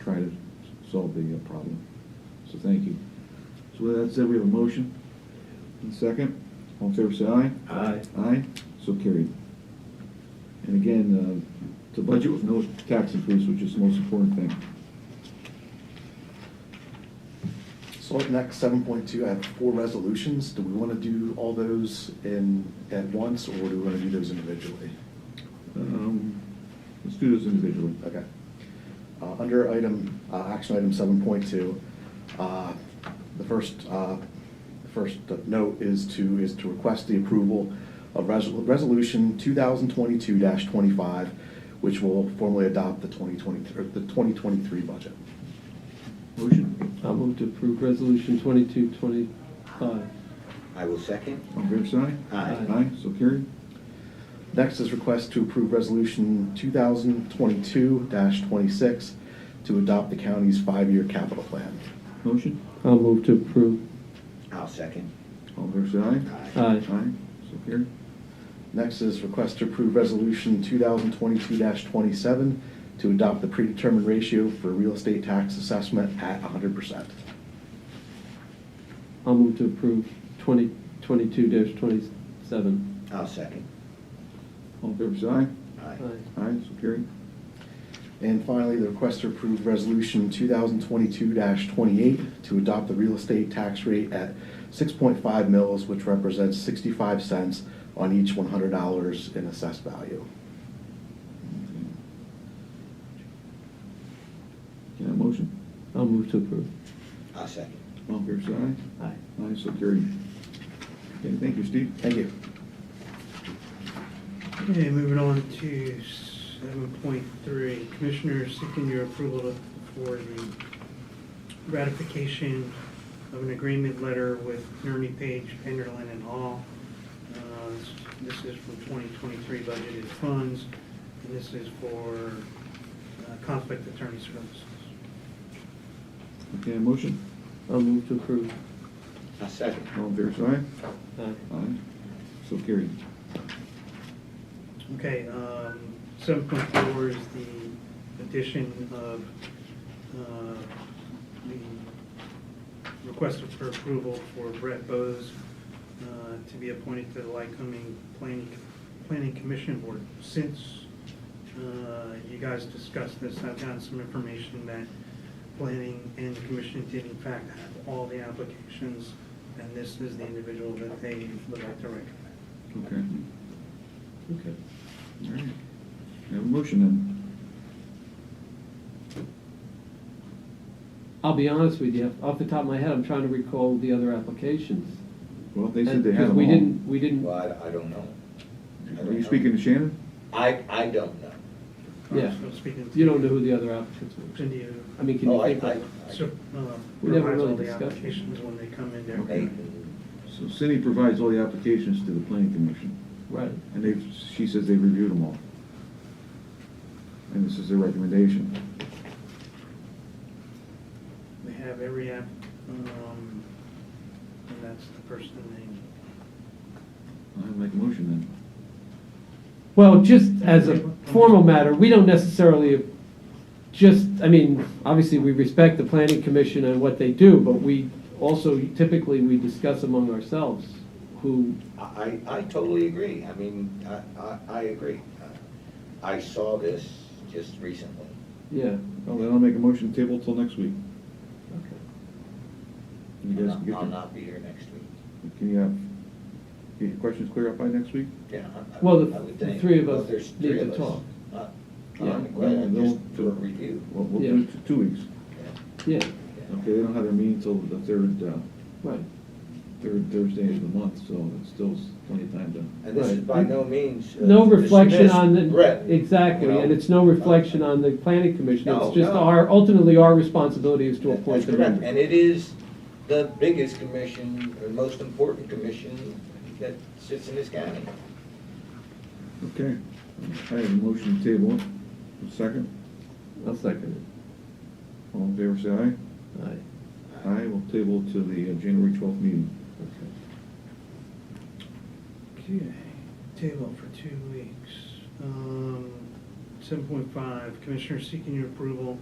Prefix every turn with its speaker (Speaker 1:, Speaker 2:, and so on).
Speaker 1: try to solve the uh, problem. So thank you.
Speaker 2: So with that said, we have a motion and second. All in favor, say aye.
Speaker 3: Aye.
Speaker 2: Aye, so carried. And again, uh, to budget with no tax increase, which is the most important thing.
Speaker 3: So up next, seven point two, I have four resolutions. Do we want to do all those in, at once, or do we want to do those individually?
Speaker 2: Um, Let's do this individually.
Speaker 3: Okay. Uh, Under item, uh, action item seven point two, uh, the first, uh, the first note is to, is to request the approval of resol- resolution two thousand twenty-two twenty-five, which will formally adopt the twenty twenty, or the twenty twenty-three budget.
Speaker 2: Motion.
Speaker 4: I'll move to approve resolution twenty-two twenty-five.
Speaker 5: I will second.
Speaker 2: All in favor, say aye.
Speaker 5: Aye.
Speaker 2: Aye, so carried.
Speaker 3: Next is request to approve resolution two thousand twenty-two twenty-six to adopt the county's five-year capital plan.
Speaker 2: Motion.
Speaker 4: I'll move to approve.
Speaker 5: I'll second.
Speaker 2: All in favor, say aye.
Speaker 5: Aye.
Speaker 4: Aye.
Speaker 2: Aye, so carried.
Speaker 3: Next is request to approve Resolution 2022-27 to adopt the predetermined ratio for real estate tax assessment at 100%.
Speaker 4: I'll move to approve twenty, twenty-two dash twenty-seven.
Speaker 5: I'll second.
Speaker 2: All in favor, say aye.
Speaker 5: Aye.
Speaker 2: Aye, so carried.
Speaker 3: And finally, the request to approve Resolution 2022-28 to adopt the real estate tax rate at 6.5 mils, which represents 65 cents on each $100 in assessed value.
Speaker 2: Can I have a motion?
Speaker 4: I'll move to approve.
Speaker 5: I'll second.
Speaker 2: All in favor, say aye.
Speaker 4: Aye.
Speaker 2: Aye, so carried. Okay, thank you, Steve.
Speaker 3: Thank you.
Speaker 6: Okay, moving on to seven point three, commissioners seeking your approval for the ratification of an agreement letter with Nerney Page, Penderlin and Hall. Uh, This this is for twenty twenty-three budgeted funds, and this is for uh, conflict attorney services.
Speaker 2: Okay, motion.
Speaker 4: I'll move to approve.
Speaker 5: I'll second.
Speaker 2: All in favor, say
Speaker 4: Aye.
Speaker 2: aye. Aye, so carried.
Speaker 6: Okay, um, seven point four is the addition of, uh, the request for approval for Brett Bose, uh, to be appointed to the Lycoming Planning, Planning Commission Board. Since, uh, you guys discussed this, I've gotten some information that planning and the commission did in fact have all the applications, and this is the individual that they would like to recommend.
Speaker 2: Okay. Okay. All right. We have a motion then.
Speaker 4: I'll be honest with you, off the top of my head, I'm trying to recall the other applications.
Speaker 2: Well, they said they
Speaker 4: And-
Speaker 2: had
Speaker 4: Uh, 'cause
Speaker 2: them
Speaker 4: We
Speaker 2: all.
Speaker 4: didn't, we didn't,
Speaker 5: Well, I, I don't know. I
Speaker 2: Are
Speaker 5: don't
Speaker 2: you
Speaker 5: know.
Speaker 2: speaking to Shannon?
Speaker 5: I, I don't know.
Speaker 4: yeah,
Speaker 6: So speaking to-
Speaker 4: you don't know who the other applicants were.
Speaker 6: Cindy, uh,
Speaker 4: I mean, can you
Speaker 5: Oh, I-
Speaker 4: think
Speaker 5: I-
Speaker 4: of?
Speaker 5: I-
Speaker 6: so, uh,
Speaker 4: We never
Speaker 6: provides all
Speaker 4: really
Speaker 6: the
Speaker 4: discussed it.
Speaker 6: applications when they come in there.
Speaker 2: Okay.
Speaker 5: Nathan,
Speaker 2: So Cindy provides all the applications to the planning commission,
Speaker 4: Right.
Speaker 2: and they, she says they reviewed them all. And this is their recommendation.
Speaker 6: They have every app, um, and that's the person they,
Speaker 2: I make a motion then.
Speaker 4: Well, just as a formal matter, we don't necessarily, just, I mean, obviously, we respect the planning commission and what they do, but we also typically, we discuss among ourselves who,
Speaker 5: I, I I totally agree. I mean, I, I, I agree. I I saw this just recently.
Speaker 4: yeah.
Speaker 2: Well, then I'll make a motion to table till next week. You guys can
Speaker 5: I'll
Speaker 2: get,
Speaker 5: I'll
Speaker 2: your-
Speaker 5: not be here next week.
Speaker 2: can you have, get your questions cleared up by next week?
Speaker 5: Yeah. I- I-
Speaker 4: Well, the-
Speaker 5: I would
Speaker 4: the
Speaker 5: think.
Speaker 4: three of
Speaker 5: Well,
Speaker 4: us
Speaker 5: there's
Speaker 4: need
Speaker 5: three
Speaker 4: to
Speaker 5: of us.
Speaker 4: talk.
Speaker 5: Not-
Speaker 4: Yeah.
Speaker 2: Uh,
Speaker 5: I'm glad,
Speaker 2: They'll-
Speaker 5: just do a review.
Speaker 2: Well, we'll do it t- two weeks.
Speaker 4: Yeah,
Speaker 5: Yeah.
Speaker 2: Okay, they don't have their meeting till the third, uh,
Speaker 4: right.
Speaker 2: third Thursday of the month, so it's still s- plenty of time to
Speaker 5: And this is
Speaker 4: Right.
Speaker 5: by no means. uh,
Speaker 4: No reflection
Speaker 5: dismiss uh,
Speaker 4: on
Speaker 5: Brett,
Speaker 4: the,
Speaker 5: you
Speaker 4: exactly,
Speaker 5: know.
Speaker 4: and it's no reflection on the planning commission.
Speaker 5: No,
Speaker 4: It's just
Speaker 5: no.
Speaker 4: our, ultimately, our responsibility is to
Speaker 5: That's
Speaker 4: appoint the
Speaker 5: correct.
Speaker 4: member.
Speaker 5: And it is the biggest commission, or most important commission that sits in this county.
Speaker 2: Okay, I have a motion to table, it. A second,
Speaker 4: I'll second
Speaker 2: all in favor, say aye.
Speaker 4: it. Aye.
Speaker 2: Aye, we'll table to the uh, January twelfth meeting.
Speaker 6: okay, table for two weeks. Um, seven point five, commissioners seeking your approval